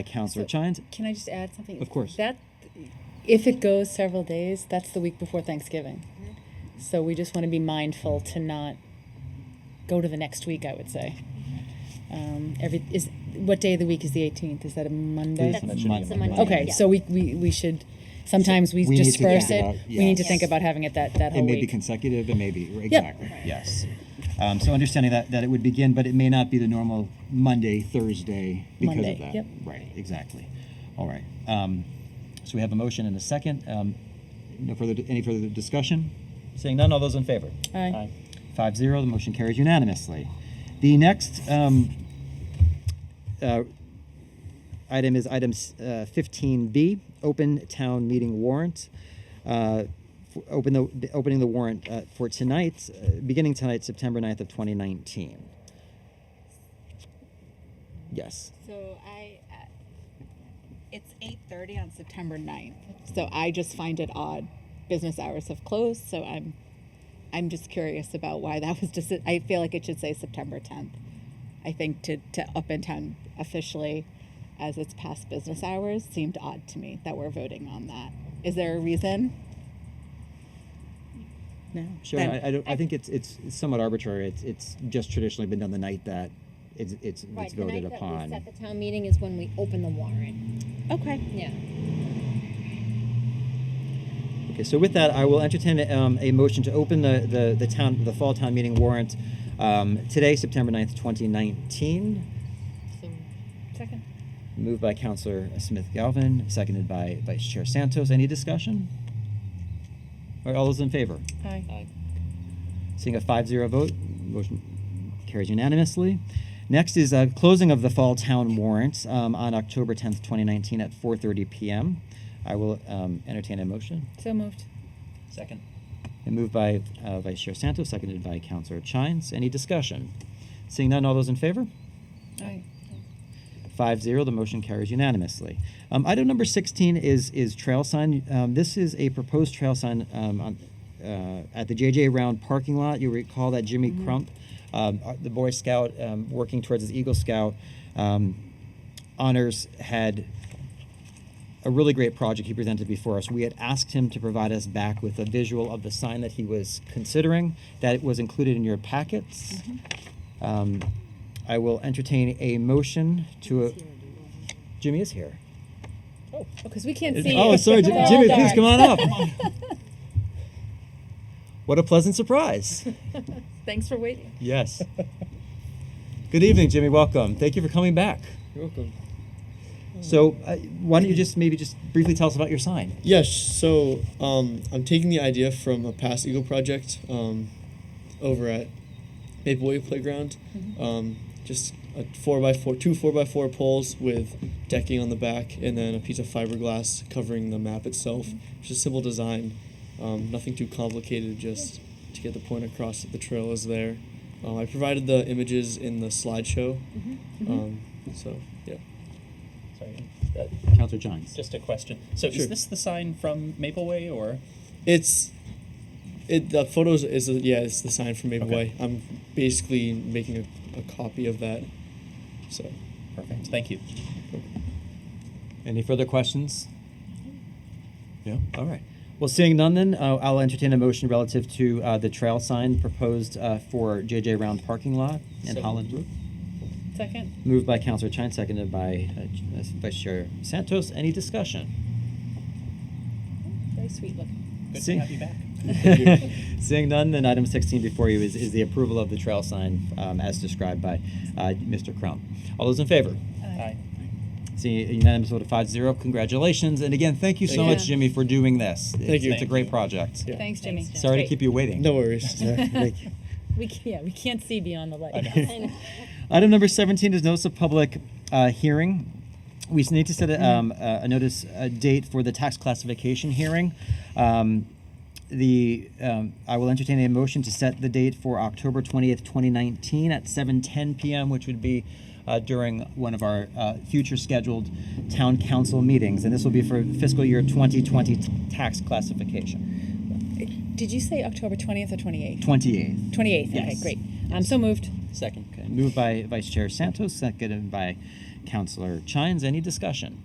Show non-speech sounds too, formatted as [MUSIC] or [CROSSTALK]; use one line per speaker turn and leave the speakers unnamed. by Councilor Chines.
Can I just add something?
Of course.
That, if it goes several days, that's the week before Thanksgiving. So we just want to be mindful to not go to the next week, I would say. Um, every, is, what day of the week is the eighteenth? Is that a Monday?
Please,
That's-
that should be
that's
on
a
Monday.
Monday.
Okay,
Yeah.
so we, we, we should, sometimes we
We need to
disperse
think
it.
about-
We need to
yes.
think about having it that, that
It
whole
may be
week.
consecutive, it may be, exactly,
Right.
yes. Um, so understanding that, that it would begin, but it may not be the normal Monday, Thursday because
Monday,
of that.
yep.
Right, exactly. All right. Um, so we have a motion and a second. Um, no further, any further discussion? Seeing none, all those in favor?
Aye.
Five zero, the motion carries unanimously. The next um, uh, item is item uh, fifteen B, open town meeting warrant. Uh, f- Open the, opening the warrant uh, for tonight, uh, beginning tonight, September 9th of twenty nineteen. Yes.
So I, uh, it's eight thirty on September 9th. So I just find it odd. Business hours have closed, so I'm, I'm just curious about why that was just. I feel like it should say September tenth. I think to to up in town officially, as it's past business hours, seemed odd to me that we're voting on that. Is there a reason? No.
Sharon, I, I don't, I think it's, it's somewhat arbitrary. It's, it's just traditionally been done the night that it's, it's
Right,
it's
the night
voted
that
upon.
we set the town meeting is when we open the warrant.
Okay.
Yeah.
Okay, so with that, I will entertain um, a motion to open the, the, the town, the fall town meeting warrant um, today, September 9th, 2019.
Second.
Moved by Counselor Smith Galvin, seconded by Vice Chair Santos. Any discussion? All right, all those in favor?
Aye.
Seeing a 5-0 vote, motion carries unanimously. Next is uh, closing of the fall town warrant um, on October 10th, 2019 at 4:30 PM. I will um, entertain a motion.
So moved.
Second. And moved by uh, Vice Chair Santos, seconded by Councilor Chines. Any discussion? Seeing none, all those in favor?
Aye.
5 0. The motion carries unanimously. Um, item number 16 is, is trail sign. Um, this is a proposed trail sign um, on, uh, at the JJ Round parking lot. You recall that Jimmy Crump, um, uh, the Boy Scout um, working towards his Eagle Scout um, honors, had a really great project he presented before us. We had asked him to provide us back with a visual of the sign that he was considering. That was included in your packets.
Mm-hmm.
Mm-hmm.
Um, I will entertain a motion to. A, Jimmy is here.
Because we can't see.
Oh,
you.
sorry, Jim-
It's all
Jimmy. Please
dark.
come on up. what a pleasant
[LAUGHS]
surprise!
[LAUGHS] Thanks for waiting.
Yes. Good evening, Jimmy. Welcome. Thank you for coming back.
You're welcome.
So, uh, why don't you just maybe just briefly tell us about your sign?
Yes, so um, I'm taking the idea from a past Eagle project um, over at Maplewood Playground. Um, just a four by four, two four by four poles with decking on the back, and then a piece of fiberglass covering the map itself. Just simple design, um, nothing too complicated. Just to get the point across that the trail is there. Um, I provided the images in the slideshow.
Mm-hmm.
Um, so yeah.
Sorry, uh,
Councilor Johns.
just a question. So
Sure.
is this the sign from Mapleway or?
It's it the photos is a, yeah it's the sign from Maple
Okay.
Way. I'm basically making a, a copy of that. So
Perfect, thank you.
Any further questions? Yeah. All right. Well, seeing none, then uh, I'll entertain a motion relative to uh, the trail sign proposed uh, for JJ Round parking lot in
So
Holland Brook.
Second.
Moved by Councilor Chine, seconded by uh, Ch- uh, Vice Chair Santos. Any discussion?
Very sweet looking.
Good
See-
to have you back.
[LAUGHS] Seeing none, then item 16 before you is, is the approval of the trail sign um, as described by uh, Mr. Crump. All those in favor?
Hi.
Seeing a unanimous vote of 5 0, congratulations. And again, thank you so
Thank you.
much, Jimmy, for doing this. Thank it's,
you.
It's a great project.
Yeah.
Thanks, Jimmy.
Thanks, Jim.
Sorry to keep you waiting.
no
[LAUGHS]
worries.
We, ca- yeah, we can't see beyond the light. [LAUGHS]
[LAUGHS] Item number 17 is notice of public uh, hearing. We need to set a, um, a a notice, a date for the tax classification hearing. Um, the um, I will entertain a motion to set the date for October 20th, 2019 at 7:10 p.m., which would be uh, during one of our uh, future scheduled town council meetings, and this will be for fiscal year 2020 t- tax classification.
Did you say October 20th or 28th?
28th.
28th.
Yes.
Okay, great. I'm so moved.
Second. Moved by Vice Chair Santos, seconded by Counselor Chines. Any discussion?